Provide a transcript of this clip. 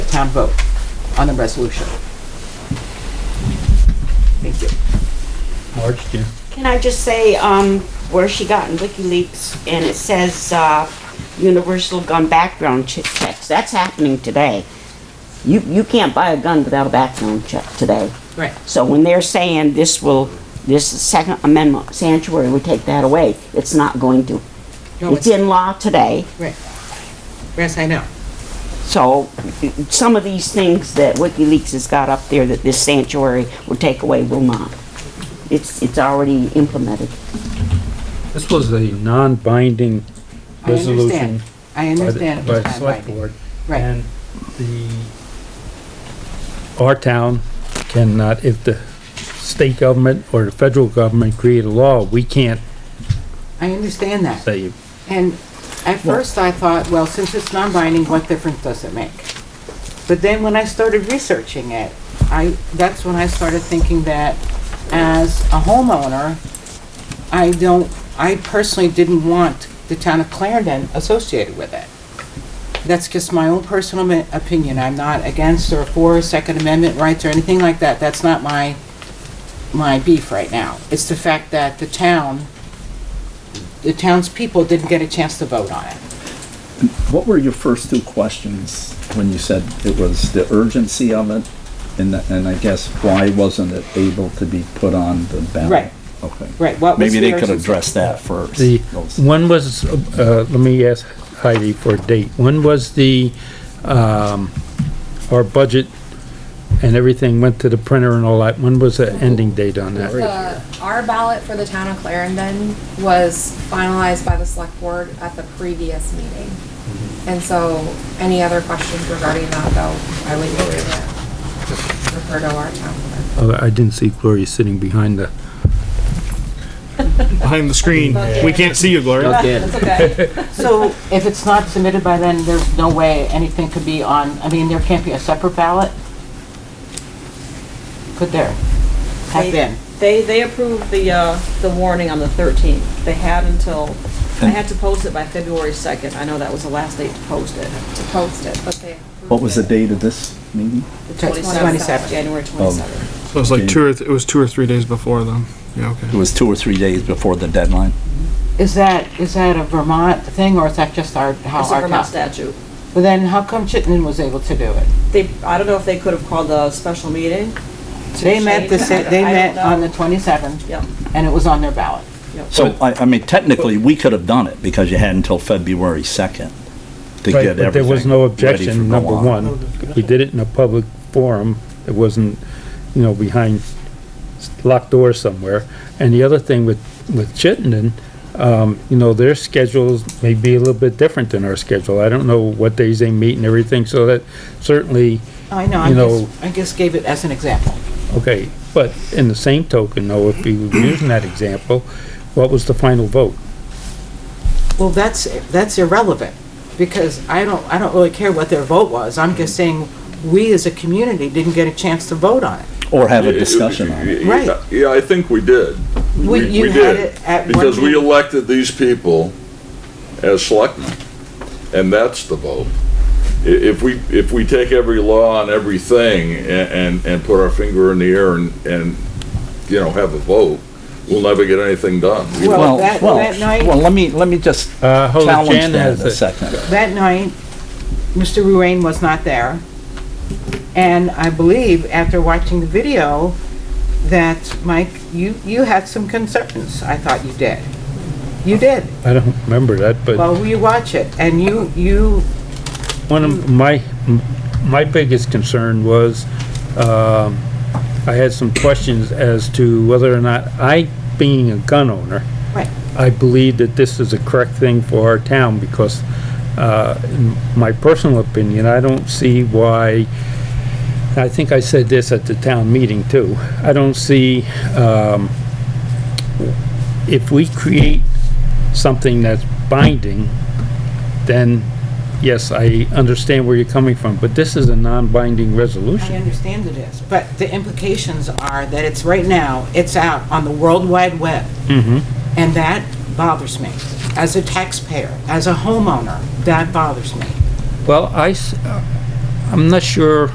town vote on the resolution. Thank you. March, yeah. Can I just say, um, where she got in WikiLeaks, and it says, uh, universal gun background che- checks, that's happening today. You, you can't buy a gun without a background check today. Right. So when they're saying this will, this Second Amendment sanctuary would take that away, it's not going to. No, It's in law today, Right. Yes, I know. so some of these things that WikiLeaks has got up there that this sanctuary will take away will not. It's, it's already implemented. This was a non-binding I understand. resolution I by the, understand. by it's the not select binding. board. Right, And the, our town cannot, if the state government or the federal government create a law, we can't I understand that. say, And at first I thought, well, since it's non-binding, what difference does it make? But then when I started researching it, I, that's when I started thinking that as a homeowner, I don't, I personally didn't want the town of Clarendon associated with it. That's just my own personal mi- opinion. I'm not against or for Second Amendment rights or anything like that. That's not my, my beef right now. It's the fact that the town the townspeople didn't get a chance to vote on it. What were your first two questions when you said it was the urgency of it? And, the- and I guess why wasn't it able to be put on the ballot? Right. Okay. Right, what was Maybe the they could urgency? address that first. the, Those- when was, uh, let me ask Heidi for a date. When was the, um, our budget and everything went to the printer and all that? When was the ending date on that? The, our ballot for the town of Clarendon was finalized by the select board at the previous meeting. And so, any other questions regarding that though, I would need to refer to our town clerk. Oh, I didn't see Gloria sitting behind the. behind the screen. We can't see you, Gloria. So if it's not submitted by then, there's no way anything could be on, I mean, there can't be a separate ballot? Could there? Have been? They, they approved the, uh, the warning on the 13th. They had until, I had to post it by February 2nd. I know that was the last date to post it. to post it, but they. approved What was the it. date of this meeting? The 27th. 27th, January 27th. So it was like two or, th- it was two or three days before then. Yeah, okay. It was two or three days before the deadline? Is that, is that a Vermont thing, or is that just our, how It's a our Vermont town? statute. But then how come Chittenden was able to do it? They, I don't know if they could have called a special meeting. to They met the, change sa- it. they I don't met on know. the 27th, Yep. and it was on their ballot. So, I, I mean, technically, we could have done it because you had until February 2nd to Right, get but There was everything no ready for objection, go number on. one. We did it in a public forum. It wasn't, you know, behind s- locked doors somewhere. And the other thing with, with Chittenden, um, you know, their schedules may be a little bit different than our schedule. I don't know what days they meet and everything, so that certainly, I know, I You know- just, I just gave it as an example. okay. But in the same token, though, if we were using that example, what was the final vote? Well, that's, that's irrelevant, because I don't, I don't really care what their vote was, I'm just saying, we as a community didn't get a chance to vote on it. Or have a discussion on it. Right. Yeah, I think we did. We- you we had did, it at one Because we meeting. elected these people as selectmen, and that's the vote. I- If we, if we take every law and everything a- and, and put our finger in the air and, and, you know, have a vote, we'll never get anything done. Well, that- that night- Well, let me, let me just Uh, hold on, Jan challenge that has a it. second. That night, Mr. Ruane was not there, and I believe, after watching the video, that, Mike, you, you had some concerns, I thought you did. You did, I don't remember that, but. well, you watch it, and you, you, One of my, my biggest concern was, um, I had some questions as to whether or not I, being a gun owner, right, I believe that this is a correct thing for our town because, uh, in my personal opinion, I don't see why, I think I said this at the town meeting too, I don't see, um, if we create something that's binding, then yes, I understand where you're coming from, but this is a non-binding I resolution. understand it is, but the implications are that it's, right now, it's out on the World Wide Web. And that bothers me. As a taxpayer, as a homeowner, that bothers me. Well, I, s- I'm not sure